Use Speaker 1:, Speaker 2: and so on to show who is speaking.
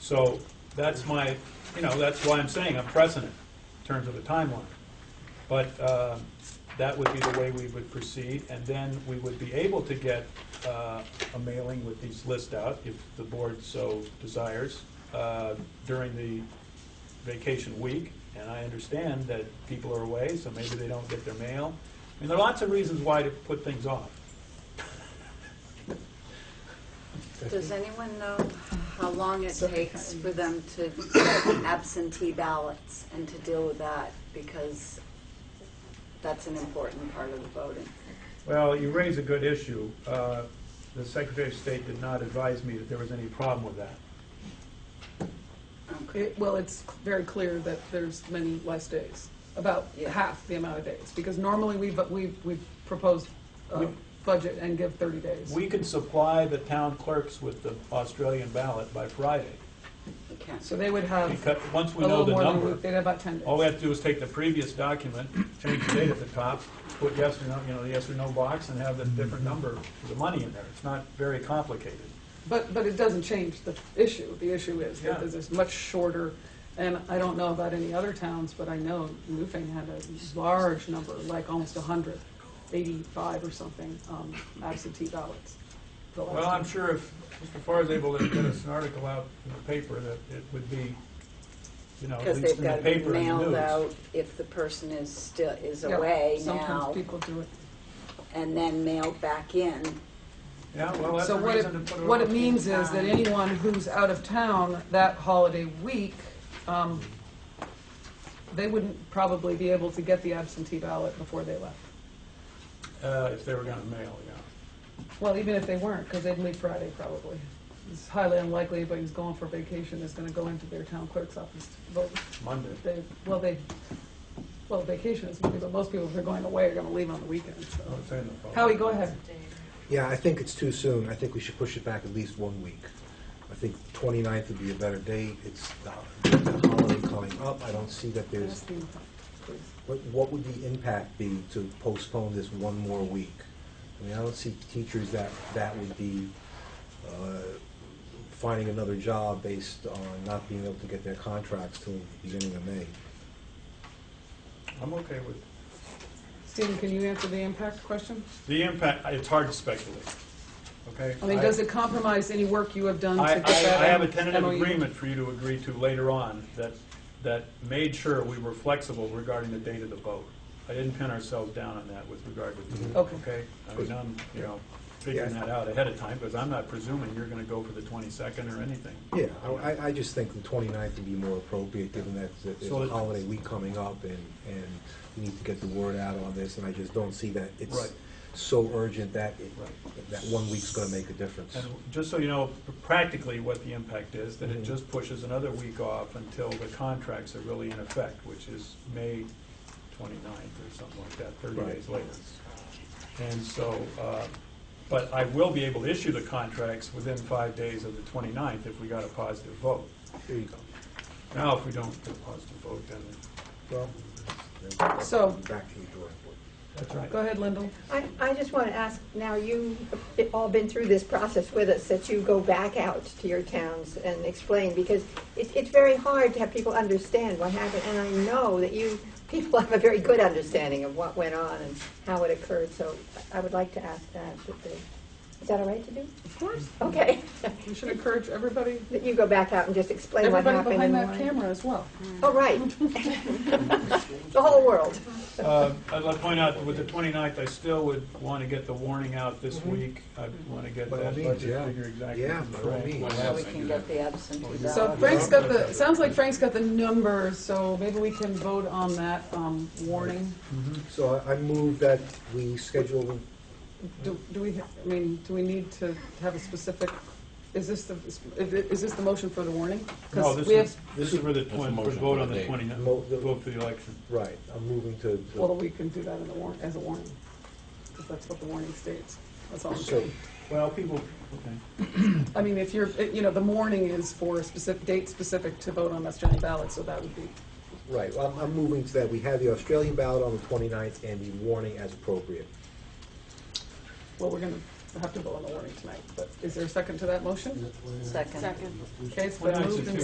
Speaker 1: So that's my, you know, that's why I'm saying I'm precedent in terms of a timeline. But uh, that would be the way we would proceed, and then we would be able to get uh, a mailing with these lists out, if the board so desires, uh, during the vacation week. And I understand that people are away, so maybe they don't get their mail. I mean, there are lots of reasons why to put things off.
Speaker 2: Does anyone know how long it takes for them to absentee ballots and to deal with that? Because that's an important part of the voting.
Speaker 1: Well, you raise a good issue. Uh, The Secretary of State did not advise me that there was any problem with that.
Speaker 2: Okay.
Speaker 3: It- Well, it's very clear that there's many less days, about
Speaker 2: Yeah.
Speaker 3: half the amount of days, because normally we, but we, we propose a
Speaker 1: We-
Speaker 3: budget and give 30 days.
Speaker 1: We could supply the town clerks with the Australian ballot by Friday.
Speaker 2: Okay.
Speaker 3: So they would have a
Speaker 1: Because, once we know
Speaker 3: little
Speaker 1: the
Speaker 3: more than, we-
Speaker 1: number,
Speaker 3: they'd have about 10 days.
Speaker 1: all we have to do is take the previous document, change the date at the top, put yes or no, you know, the yes or no box, and have the different number, for the money in there. It's not very complicated.
Speaker 3: But, but it doesn't change the issue. The issue is
Speaker 1: Yeah.
Speaker 3: that there's this much shorter, and I don't know about any other towns, but I know Newfane had a large number, like almost 100, 85 or something um, absentee ballots. the last
Speaker 1: Well, I'm
Speaker 3: time.
Speaker 1: sure if Mr. Farr is able to get us an article out in the paper, that it would be, you know, at
Speaker 2: Because
Speaker 1: least
Speaker 2: they've
Speaker 1: in the
Speaker 2: got it
Speaker 1: paper and the
Speaker 2: mailed
Speaker 1: news.
Speaker 2: out if the person is still, is
Speaker 3: Yeah,
Speaker 2: away now,
Speaker 3: Sometimes people do it.
Speaker 2: and then mailed back in.
Speaker 1: Yeah, well, that's a
Speaker 3: So what it,
Speaker 1: reason to put it
Speaker 3: what
Speaker 1: off.
Speaker 3: it means is that anyone who's out of town that holiday week, um, they wouldn't probably be able to get the absentee ballot before they left.
Speaker 1: Uh, if they were gonna mail, yeah.
Speaker 3: Well, even if they weren't, because they'd leave Friday probably. It's highly unlikely anybody who's going for vacation is gonna go into their town clerk's office to vote.
Speaker 1: Monday.
Speaker 3: They, well, they, well, vacation is Monday, but most people, if they're going away, are gonna leave on the weekend,
Speaker 1: I would
Speaker 3: so.
Speaker 1: say in Oh, the fall.
Speaker 3: Howie, go ahead.
Speaker 4: Yeah, I think it's too soon. I think we should push it back at least one week. I think the 29th would be a better date. It's the the holiday coming up. I don't see that there's,
Speaker 3: Ask them, please.
Speaker 4: what what would the impact be to postpone this one more week? I mean, I don't see teachers that, that would be uh, finding another job based on not being able to get their contracts till the beginning of May.
Speaker 1: I'm okay with,
Speaker 3: Stephen, can you answer the impact question?
Speaker 1: the impact, it's hard to speculate, okay?
Speaker 3: I mean, does it compromise any work you have done to
Speaker 1: I, I,
Speaker 3: get that?
Speaker 1: I have a tentative
Speaker 3: MOU?
Speaker 1: agreement for you to agree to later on that, that made sure we were flexible regarding the date of the vote. I didn't pin ourselves down on that with regard to, the-
Speaker 3: Mm-hmm. Okay.
Speaker 1: okay? I mean, I'm, you know, figuring
Speaker 4: Yeah.
Speaker 1: that out ahead of time, because I'm not presuming you're gonna go for the twenty-second or anything.
Speaker 4: Yeah, I- I, I just think the 29th would be more appropriate, given that that there's
Speaker 1: So
Speaker 4: a
Speaker 1: it-
Speaker 4: holiday week coming up, and, and we need to get the word out on this, and I just don't see that
Speaker 1: Right.
Speaker 4: it's so urgent that, it-
Speaker 1: Right.
Speaker 4: that one week's gonna make a difference.
Speaker 1: And just so you know practically what the impact is, that it
Speaker 4: Mhm.
Speaker 1: just pushes another week off until the contracts are really in effect, which is May 29th or something like that, 30
Speaker 4: Right.
Speaker 1: days later. And so, uh, but I will be able to issue the contracts within five days of the 29th if we got a positive vote.
Speaker 4: There you go.
Speaker 1: Now, if we don't get a positive vote, then,
Speaker 4: Well, then
Speaker 3: So-
Speaker 4: Back to the drawing board.
Speaker 1: that's right.
Speaker 3: Go ahead, Lyndall.
Speaker 5: I, I just want to ask, now you've all been through this process with us, that you go back out to your towns and explain, because it, it's very hard to have people understand what happened, and I know that you, people have a very good understanding of what went on and how it occurred, so I would like to ask that, that they- is that all right to do?
Speaker 3: Of course.
Speaker 5: Okay,
Speaker 3: We should encourage everybody,
Speaker 5: that you go back out and just explain what
Speaker 3: everybody
Speaker 5: happened.
Speaker 3: behind
Speaker 5: and
Speaker 3: that
Speaker 5: why.
Speaker 3: camera as well.
Speaker 5: Oh, right. The whole world.
Speaker 1: Uh, I'd like to point out, that with the 29th, I still would want to get the warning out this
Speaker 4: Mhm.
Speaker 1: week. I want to get
Speaker 4: By all
Speaker 1: that
Speaker 4: means,
Speaker 1: budget
Speaker 4: yeah.
Speaker 1: figure exactly.
Speaker 4: Yeah,
Speaker 1: from
Speaker 4: by all
Speaker 1: Frank.
Speaker 4: means.
Speaker 1: What
Speaker 2: So we
Speaker 1: happened.
Speaker 2: can get the absentee
Speaker 1: Yeah.
Speaker 3: So
Speaker 2: ballot.
Speaker 3: Frank's got the, it sounds like Frank's got the numbers, so maybe we can vote on that um, warning.
Speaker 1: Mm-hmm.
Speaker 4: So I- I move that we schedule,
Speaker 3: Do do we, ha- I mean, do we need to have a specific, is this the, is this the motion for the warning?
Speaker 1: No,
Speaker 3: Because
Speaker 1: this
Speaker 3: we have,
Speaker 1: is, this is for the
Speaker 6: That's a
Speaker 1: twen- for
Speaker 6: motion
Speaker 1: vote
Speaker 6: for
Speaker 1: on
Speaker 6: the
Speaker 1: the
Speaker 6: date.
Speaker 1: twenty,
Speaker 4: Mo- the-
Speaker 1: vote for the election.
Speaker 4: right, I'm moving to- to.
Speaker 3: well, we can do that in the warrant, as a warning, because that's what the warning states. That's all I'm
Speaker 4: So,
Speaker 3: saying.
Speaker 1: Well, people, okay.
Speaker 3: I mean, if you're, it- you know, the morning is for a specific, date specific to vote on West Johnny ballot, so that would be,
Speaker 4: right, well, I'm, I'm moving to that. We have the Australian ballot on the 29th and the warning as appropriate.
Speaker 3: well, we're gonna have to vote on the warning tonight, but is there a second to that motion?
Speaker 2: Second.
Speaker 3: Okay, it's
Speaker 1: Why
Speaker 3: been
Speaker 1: not
Speaker 3: moved and